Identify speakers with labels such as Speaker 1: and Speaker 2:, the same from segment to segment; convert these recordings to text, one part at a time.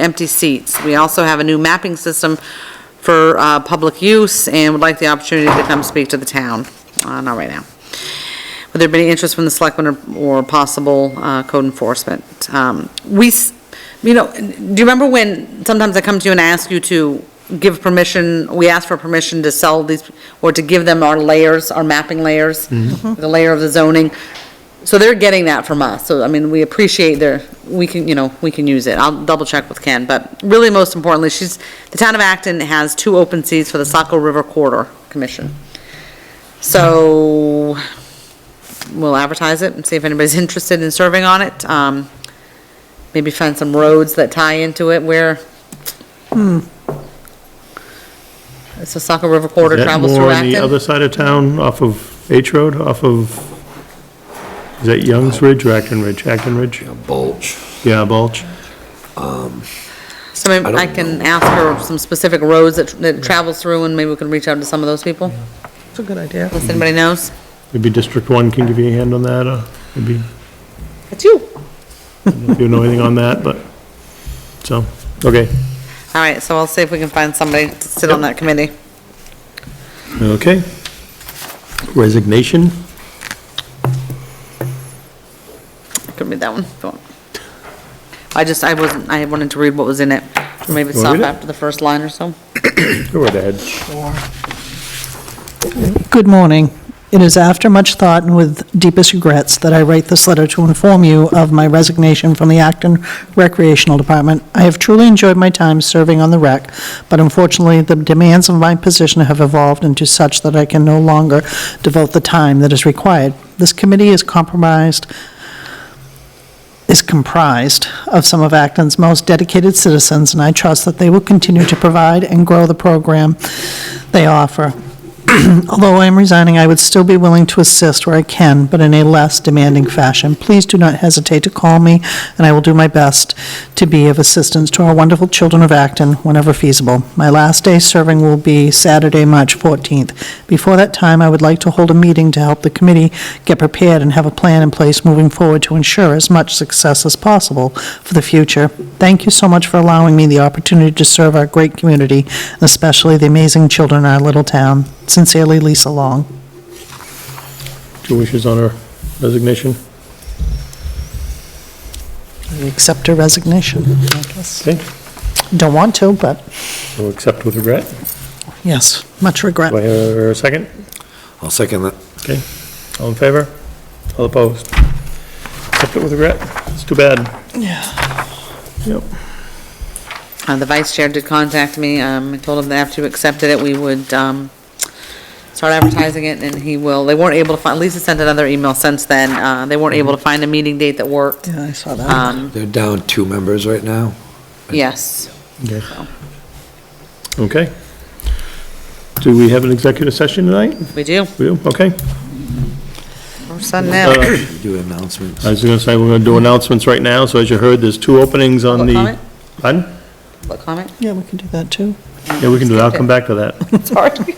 Speaker 1: empty seats. We also have a new mapping system for uh, public use and would like the opportunity to come speak to the town. Uh, Not right now. Would there be any interest from the selectmen or- or possible uh, code enforcement? Um, We, s- you know, do you remember when sometimes I come to you and I ask you to give permission, we ask for permission to sell these, or to give them our layers, our mapping layers, the layer of the zoning? So they're getting that from us, so, I mean, we appreciate their, we can, you know, we can use it. I'll double check with Ken, but really most importantly, she's, the town of Acton has two open seats for the Saco River Corridor Commission. So, we'll advertise it and see if anybody's interested in serving on it. Um, maybe find some roads that tie into it where.
Speaker 2: Hmm.
Speaker 1: It's the Saco River Corridor
Speaker 2: Is that
Speaker 1: travels through
Speaker 2: More on the
Speaker 1: Acton.
Speaker 2: other side of town, off of H Road, off of, is that Youngs Ridge or Acton Ridge? Acton Ridge?
Speaker 3: Bulge.
Speaker 2: Yeah, Bulge.
Speaker 1: So maybe
Speaker 3: I don't
Speaker 1: I can ask her some specific roads that, that it travels through and maybe we can reach out to some of those people,
Speaker 4: It's a good idea.
Speaker 1: unless anybody knows.
Speaker 2: Maybe District One can give you a hand on that, or maybe,
Speaker 1: It's you.
Speaker 2: if you know anything on that, but, so, okay.
Speaker 1: All right, so I'll see if we can find somebody to sit on that committee.
Speaker 2: Okay. Resignation?
Speaker 1: Could read that one. if you want. I just, I wasn't, I wanted to read what was in it. Maybe
Speaker 2: Wanna
Speaker 1: stop
Speaker 2: read it?
Speaker 1: after the first line or so.
Speaker 2: Go right ahead.
Speaker 4: Good morning. It is after much thought and with deepest regrets that I write this letter to inform you of my resignation from the Acton Recreational Department. I have truly enjoyed my time serving on the rec, but unfortunately, the demands of my position have evolved into such that I can no longer devote the time that is required. This committee is compromised is comprised of some of Acton's most dedicated citizens, and I trust that they will continue to provide and grow the program they offer. Although I am resigning, I would still be willing to assist where I can, but in a less demanding fashion. Please do not hesitate to call me, and I will do my best to be of assistance to our wonderful children of Acton whenever feasible. My last day serving will be Saturday, March 14th. Before that time, I would like to hold a meeting to help the committee get prepared and have a plan in place moving forward to ensure as much success as possible for the future. Thank you so much for allowing me the opportunity to serve our great community, especially the amazing children in our little town. Sincerely, Lisa Long.
Speaker 2: Two wishes on her resignation.
Speaker 4: I accept her resignation, I guess.
Speaker 2: Okay,
Speaker 4: Don't want to, but
Speaker 2: we'll accept with regret.
Speaker 4: yes, much
Speaker 2: Do I
Speaker 4: regret.
Speaker 2: hear a second?
Speaker 3: I'll second that.
Speaker 2: Okay, all in favor? All opposed? Accept it with regret? It's too bad. Yeah. Yep.
Speaker 1: Uh, The vice chair did contact me, um, I told him that after you accepted it, we would um, start advertising it, and he will, they weren't able to find, Lisa sent another email since then, uh, they
Speaker 2: Mm-hmm.
Speaker 1: weren't able to find a meeting date that worked.
Speaker 4: Yeah, I saw that.
Speaker 1: Um,
Speaker 3: They're down two members right now.
Speaker 1: Yes,
Speaker 2: Okay. Okay. Do we have an executive session tonight?
Speaker 1: we do,
Speaker 2: We do, okay.
Speaker 1: we're sending out.
Speaker 2: Uh,
Speaker 3: We Do announcements.
Speaker 2: I was gonna say, we're gonna do announcements right now, so as you heard, there's two openings on
Speaker 1: Public
Speaker 2: the.
Speaker 1: comment?
Speaker 2: Pardon?
Speaker 1: What comment?
Speaker 4: Yeah, we can do that, too.
Speaker 2: Yeah, we can do that, I'll come back to that.
Speaker 1: Sorry.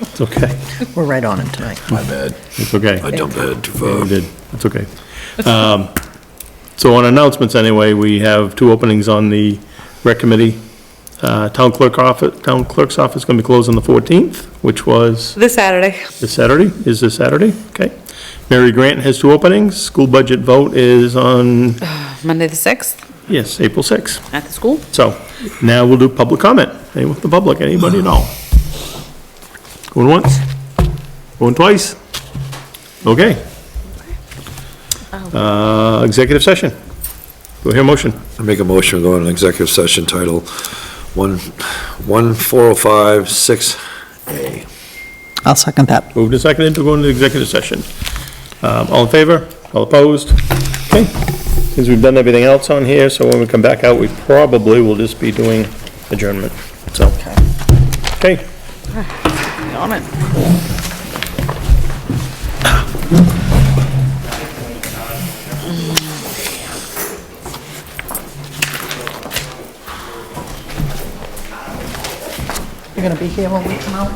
Speaker 2: It's okay,
Speaker 4: We're right on it tonight.
Speaker 3: My bad.
Speaker 2: it's okay.
Speaker 3: I jumped ahead too
Speaker 2: Yeah,
Speaker 3: far.
Speaker 2: you did, it's okay. Um, So on announcements anyway, we have two openings on the rec committee. Uh, Town clerk office, town clerk's office gonna be closed on the 14th, which was
Speaker 1: This Saturday.
Speaker 2: This Saturday, is this Saturday, okay. Mary Grant has two openings, school budget vote is on,
Speaker 1: Monday the 6th,
Speaker 2: yes, April 6th.
Speaker 1: at the school.
Speaker 2: So now we'll do public comment, anyone with the public, anybody at all? Going once? Going twice? Okay. Uh, executive session. Do I hear a motion?
Speaker 3: I make a motion, to go into executive session title one, one four oh five, six A.
Speaker 4: I'll second that.
Speaker 2: Moved and seconded to go into executive session. Um, all in favor? All opposed? Okay. Since we've done everything else on here, so when we come back out, we probably will just be doing adjournment, so. Okay,
Speaker 1: On it.
Speaker 4: You're going to be here when we come out?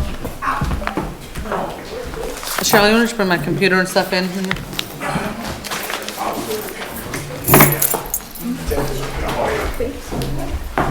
Speaker 1: Cheryl, you want to just bring my computer and stuff in?